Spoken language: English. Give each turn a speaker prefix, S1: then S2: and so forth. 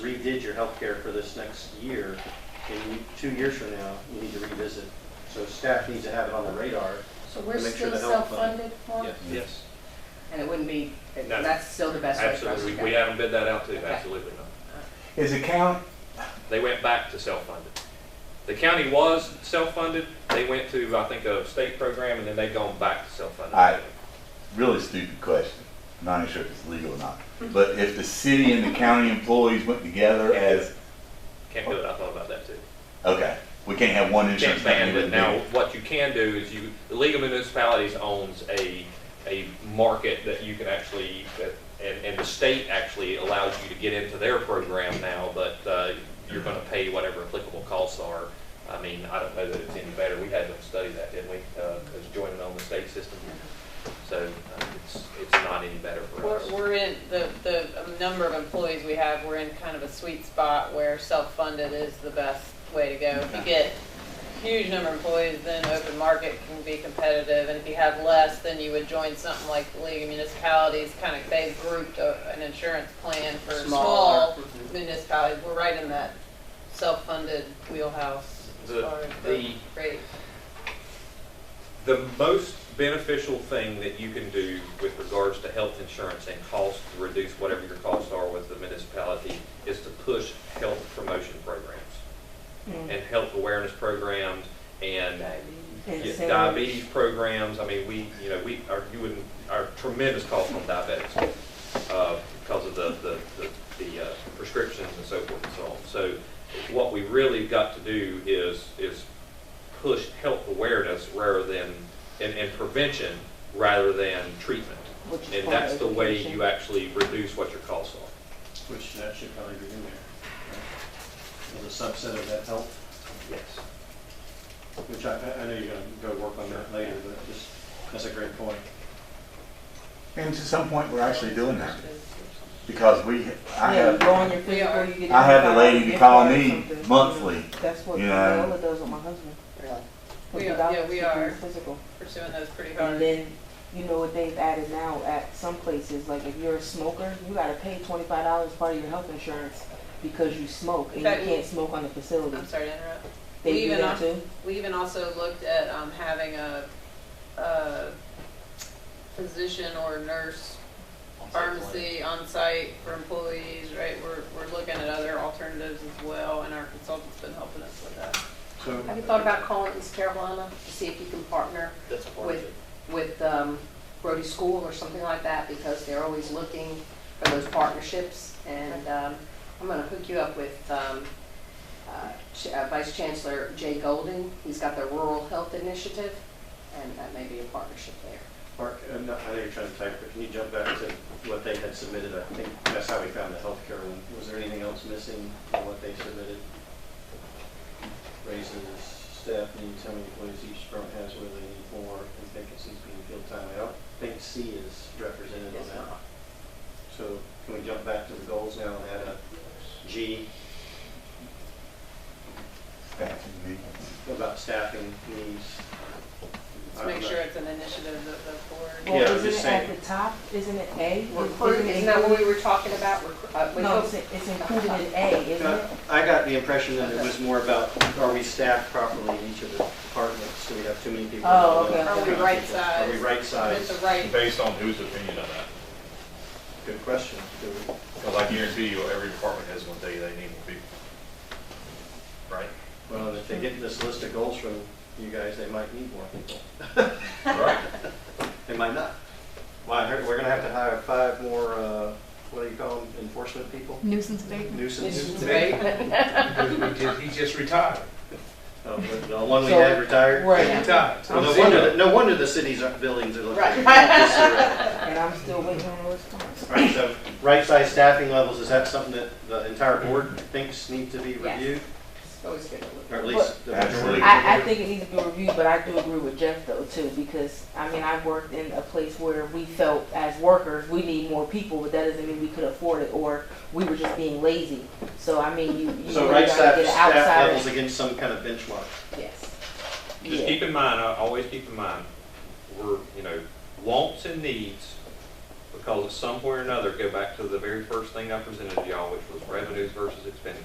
S1: redid your healthcare for this next year, and you- two years from now, you need to revisit. So staff needs to have it on the radar.
S2: So we're
S1: To make sure
S2: still
S1: the health fund-
S2: self-funded for? it?
S3: Yes,
S2: And it wouldn't be,
S3: No.
S2: that's still the best way for us to
S3: absolutely. We- We
S2: go.
S3: haven't bid that out to you,
S2: Okay.
S3: absolutely not.
S4: Is the county,
S3: They went back to self-funded. The county was self-funded, they went to, I think, a state program, and then they've gone back to self-funded.
S5: I- Really stupid question. I'm not even sure if it's legal or not. But if the city and the county employees went together as,
S3: Can't do it, I thought about that too.
S5: okay, we can't have one insurance
S3: Can't
S5: company.
S3: ban it.
S5: with
S3: Now,
S5: me.
S3: what you can do is you, the League of Municipalities owns a, a market that you can actually, that- and, and the state actually allows you to get into their program now, but, uh, you're gonna pay whatever applicable costs are. I mean, I don't know that it's any better. We had them study that, didn't we? Uh, as joining on the state system. So, uh, it's, it's not any better for us.
S6: We're, we're in, the, the um, number of employees we have, we're in kind of a sweet spot where self-funded is the best way to go. If you get huge number of employees, then open market can be competitive, and if you have less, then you would join something like the League of Municipalities, kind of, they've grouped a- an insurance plan for
S2: Smaller.
S6: small municipalities. We're right in that self-funded wheelhouse as
S3: The-
S6: far as
S3: the-
S6: the rate.
S3: The most beneficial thing that you can do with regards to health insurance and costs, to reduce whatever your costs are with the municipality, is to push health promotion programs and health awareness programs and yeah, diabetes programs. I mean, we, you know, we are, you would, are tremendous costs on diabetics uh, because of the, the, the- the uh, prescriptions and so forth and so on. So what we really got to do is, is push health awareness rather than, and, and prevention rather than treatment.
S2: Which is
S3: And
S2: part of
S3: that's the way
S2: education.
S3: you actually reduce what your costs are.
S1: Which that should probably be in there. right? As a subset of that health,
S3: Yes.
S1: which I, I- I know you're gonna go work on that later, but just, that's a great point.
S5: And to some point, we're actually doing that because we, I
S7: Yeah, you
S5: have,
S7: go on your physical, you get.
S5: I have
S7: a
S5: the lady to
S7: gift
S5: call
S7: card or
S5: me
S7: something.
S5: monthly.
S7: That's what
S5: you know.
S7: Viola does with my husband.
S2: Really?
S7: With
S6: We
S7: the
S6: are- yeah,
S7: doctors,
S6: we
S7: they do
S6: are.
S7: Physical.
S6: Pursuing those pretty hard.
S7: And then, you know what they've added now at some places, like if you're a smoker, you gotta pay twenty-five dollars part of your health insurance because you smoke and you
S6: That-
S7: can't smoke on the facility.
S6: I'm sorry to interrupt.
S7: They do
S6: even
S7: that
S6: on-
S7: too?
S6: We even also looked at um, having a, a physician or nurse pharmacy on site for employees, right? We're, we're looking at other alternatives as well, and our consultant's been helping us with that.
S1: So.
S2: Have you thought about calling East Carolina to see if you can partner
S3: That's part
S2: with, with um, Brody School or something like that? Because they're always looking for those partnerships. And um, I'm going to hook you up with um, uh, Ch- uh, Vice Chancellor Jay Golden. He's got the Rural Health Initiative, and that may be a partnership there.
S1: Mark, I'm not- I know you're trying to type, but can you jump back to what they had submitted? I think that's how we found the healthcare one. Was there anything else missing from what they submitted? Raises, staff needs, how many employees each department has, whether they need more, and vacancies being filled timely. I don't think C is represented on
S2: It's
S1: that.
S2: not.
S1: So can we jump back to the goals now and add a G about staffing needs?
S6: Let's make sure it's an initiative of the board.
S1: Yeah,
S7: Well,
S1: I'm
S7: isn't
S1: just
S7: it at
S1: saying.
S7: the top, isn't it A?
S2: Recruit,
S7: Isn't it
S2: isn't that what
S7: included-
S2: we were talking about? Recru- uh, we
S7: No,
S2: hope-
S7: it's, it's included in A, isn't it?
S1: Uh, I got the impression that it was more about, are we staffed properly in each of the departments? Do we have too many people?
S7: Oh, okay.
S6: Are we
S1: Are we
S6: right-sized?
S1: right
S6: Is
S1: sized?
S6: it the right
S8: Based on whose opinion of that?
S1: Good question. Do
S8: Because I guarantee you, every department has one day they need more people. Right?
S1: we- Well, if they get this list of goals from you guys, they might need more people.
S8: Right.
S1: They might not. Well, I heard we're gonna have to hire five more, uh, what do you call them, enforcement people?
S9: nuisance abatement.
S1: Nuisance.
S10: He just retired.
S1: Oh, but The one we had retired?
S7: Right,
S10: Retired.
S1: Well, No wonder, that- no wonder the city's buildings are looking.
S2: Right.
S1: Right.
S7: and I'm still waiting on a response.
S1: All right, so right-sized staffing levels, is that something that the entire board thinks need to be
S2: Yes.
S1: reviewed?
S2: It's always good to look.
S1: Or at least the majority?
S5: Absolutely.
S7: I, I think it needs to be reviewed, but I do agree with Jeff though too, because, I mean, I've worked in a place where we felt as workers, we need more people, but that doesn't mean we could afford it, or we were just being lazy. So, I mean, you, you
S1: So
S7: really
S1: right
S7: gotta
S1: staff,
S7: get an
S1: staff levels
S7: outsider.
S1: against some kind of benchmark.
S7: Yes.
S3: Just
S7: Yeah,
S3: keep in mind, I always keep in mind, we're, you know, wants and needs, because at some point or another, go back to the very first thing I presented to y'all, which was revenues versus expenses.